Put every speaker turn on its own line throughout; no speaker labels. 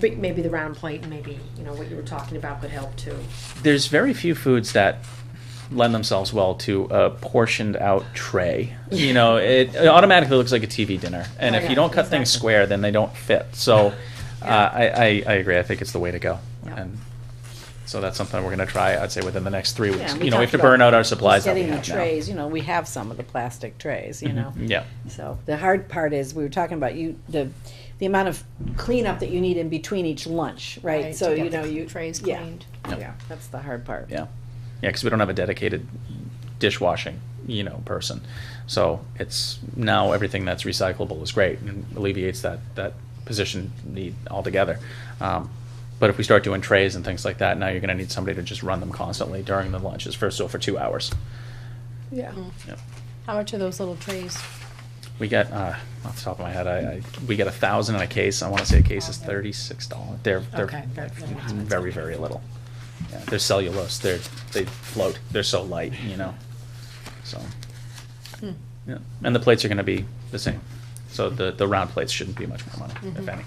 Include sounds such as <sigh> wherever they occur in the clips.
But maybe the round plate and maybe, you know, what you were talking about could help too.
there's very few foods that lend themselves well to a portioned out
<laughs>
tray. You know, it, it automatically looks like a TV dinner, and if
Oh,
Right.
you don't cut things
Exactly.
square, then they don't fit. So,
Yeah.
uh, I, I I agree. I think it's the way to go,
Yeah.
and so that's something we're going to try. I'd say within the next three weeks.
Yeah,
you know, we have
talked
to
about
burn out our
just
supplies that we
Getting the
have now. Mm-hmm.
trays, you know, we have some of the plastic trays, you know.
Yeah.
So the hard part is, we were talking about you, the, the amount of cleanup that you need in between each lunch, right? So,
to
you
get
know,
the
you.
Trays
yeah,
cleaned.
Yep.
Yeah, that's the hard part.
Yeah, yeah, because we don't have a dedicated dishwashing, you know, person. So it's now everything that's recyclable is great and alleviates that that position need altogether. Um, but if we start doing trays and things like that, now you're going to need somebody to just run them constantly during the lunches for so for two hours.
Yeah.
Mm-hmm.
Yep.
How much are those little trays?
We got uh, off the top of my head, I, I we got a thousand in a case. I want to say a case is thirty six dollars. They're they're
Okay, they're- they're expensive.
very very little. Yeah, they're cellulose. They're they float. They're so light, you know. So
Hmm.
yeah, and the plates are going to be the same. So the the round plates shouldn't be much more money, if
Mm-hmm.
Mhm.
any.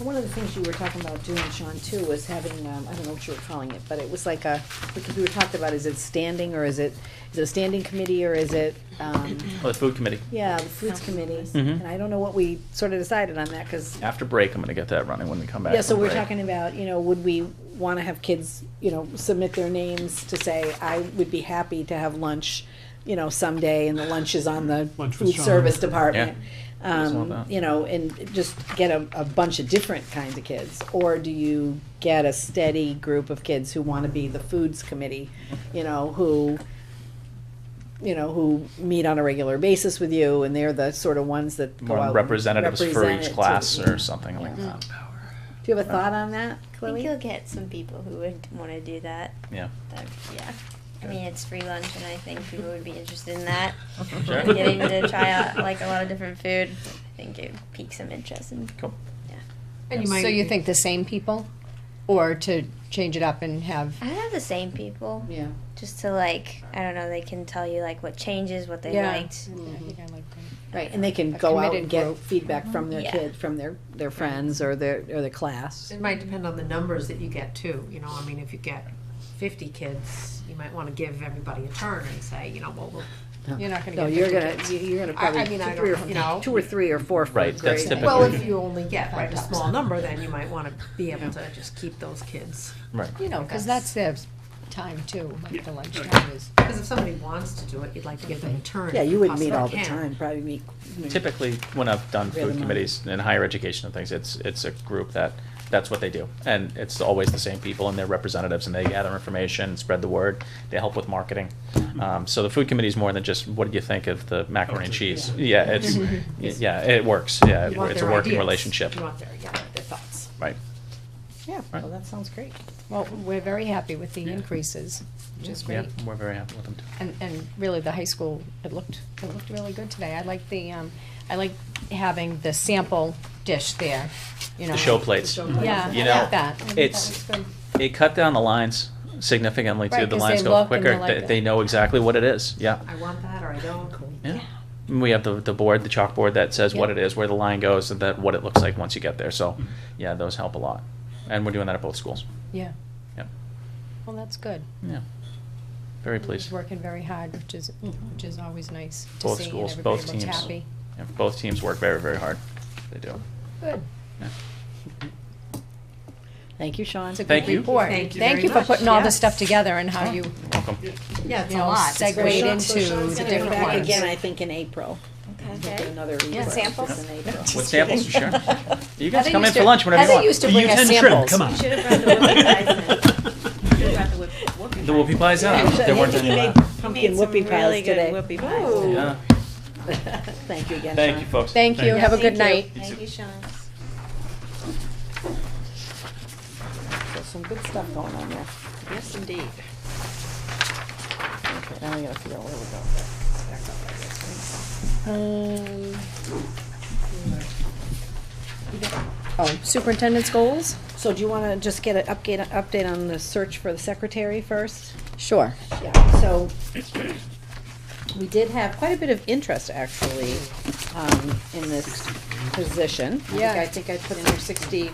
And One of the things you were talking about doing, Sean, too, was having, um, I don't know what you were calling it, but it was like a, because we were talking about, is it standing or is it, is it a standing committee or is it, um,
Well, the food committee.
yeah, the foods committee?
Mhm.
And I don't know what we sort of decided on that, cause
After break, I'm going to get that running when we come back.
Yeah, so
from
we're
break.
talking about, you know, would we wanna have kids, you know, submit their names to say, I would be happy to have lunch, you know, someday, and the lunch is on the
Lunch with
food
Sean.
service department.
I saw
Um,
that.
you know, and just get a, a bunch of different kinds of kids, or do you get a steady group of kids who wanna be the foods committee, you know, who, you know, who meet on a regular basis with you, and they're the sort of ones that go out
more
and
representatives for
represent it
each
to-
class or something like
Yeah. Mm-hmm.
that.
Do you have a thought on that,
I
Chloe?
think you'll get some people who would want to do that.
Yeah.
That- yeah. I mean, it's free lunch, and I think people would be interested in that.
Sure. <laughs>
Getting to try out like a lot of different food, I think it would pique some interest. And
Cool.
And you might.
So you
even-
think the same people? Or to change it up and have,
I have the same people,
Yeah.
just to like, I don't know, they can tell you like what changes, what they
Yeah.
liked.
Mm-hmm.
Right, and they can
A
go out
committed
and get
group.
feedback from their
Yeah.
kid, from their, their friends or their, or their class.
It might depend on the numbers that you get too, you know, I mean, if you get fifty kids, you might wanna give everybody a turn and say, you know, well, we'll
you're not gonna
No,
get.
you're
50
gonna,
kids.
you- you're gonna
I- I
probably,
mean, I
three
don't- you know.
or, two or three or four for a
Right, that's
grade.
typical.
Well, if you only get like a small number, then you might wanna be able to just keep those kids.
Right.
You know, cause that's the time too, like the lunchtime is.
Cause if somebody wants to do it, you'd like to give them a turn.
Yeah,
if
you wouldn't
possibly
meet all the
can.
time, probably meet. you know,
typically when I've done
Rhythm
food
on.
committees in higher education and things, it's it's a group that that's what they do, and it's always the same people and their representatives, and they gather information, spread the word, they help with marketing. Um, so the food committee is more than just what do you think of the macaroni and cheese? Yeah, it's yeah, it works. Yeah,
You want
it's a
their
working
ideas.
relationship,
You want their, yeah, their thoughts.
right?
Yeah, well, that sounds great.
Well, we're very happy with the
Yeah.
increases, which is
Yeah,
great.
we're very happy with them too.
And, and really, the high school, it looked, it looked really good today. I like the, um, I like having the sample dish there, you know.
The show plates.
Yeah,
You
I
know,
like that. I think that
it's-
was good.
It cut down the lines significantly too.
Right,
The
'cause they
lines go
look and
quicker.
they're like
They-
that.
They know exactly what it is, yeah.
I want that or I don't.
Yeah. We have the, the board, the chalkboard that says what
Yeah. Mm-hmm.
it is, where the line goes, and that what it looks like once you get there. So, yeah, those help a lot. And we're doing that at both schools.
Yeah.
Yep.
Well, that's good.
Yeah. Very pleased.
He's working very hard, which is, which is always nice to see.
Both
and
schools,
everybody
both
looks
teams.
happy.
Yeah, both teams work very, very hard. They do.
Good.
Thank you, Sean.
It's a
Thank
good
you.
report.
Thank you very
Thank you for
much.
putting all
Yeah.
this stuff together and how you,
You're welcome.
Yeah, it's
you
a
know,
lot. It's very-
segued into the
They're
different
back
ones.
again, I think, in April. We'll do
Okay.
Another report
samples?
in
<laughs>
April.
With samples, sure.
<laughs>
You guys
Heather
come in
used
for
to-
lunch whenever you
Heather
want.
used to bring us samples.
Come on.
should have brought the
<laughs>
women
The whoopie pies <laughs> out.
<laughs>
Actually,
There
I
weren't
think
any
you made
left.
pumpkin whoopie pies today.
whoopie pies.
<laughs> Yeah.
Thank you again, Sean.
Thank you, folks.
Thank you.
Yeah,
Have a
thank
good
you.
night.
Thank you, Sean.
There's some good stuff going on there. Yes, indeed. Okay, now we gotta figure out where we're going. It's back up, I guess,
Um, Oh, superintendent's goals?
right? So do you wanna just get an update, update on the search for the secretary first?
Sure.
Yeah, so we did have quite a bit of interest actually, um, in this position. I think
Yeah.
I think I put in here sixty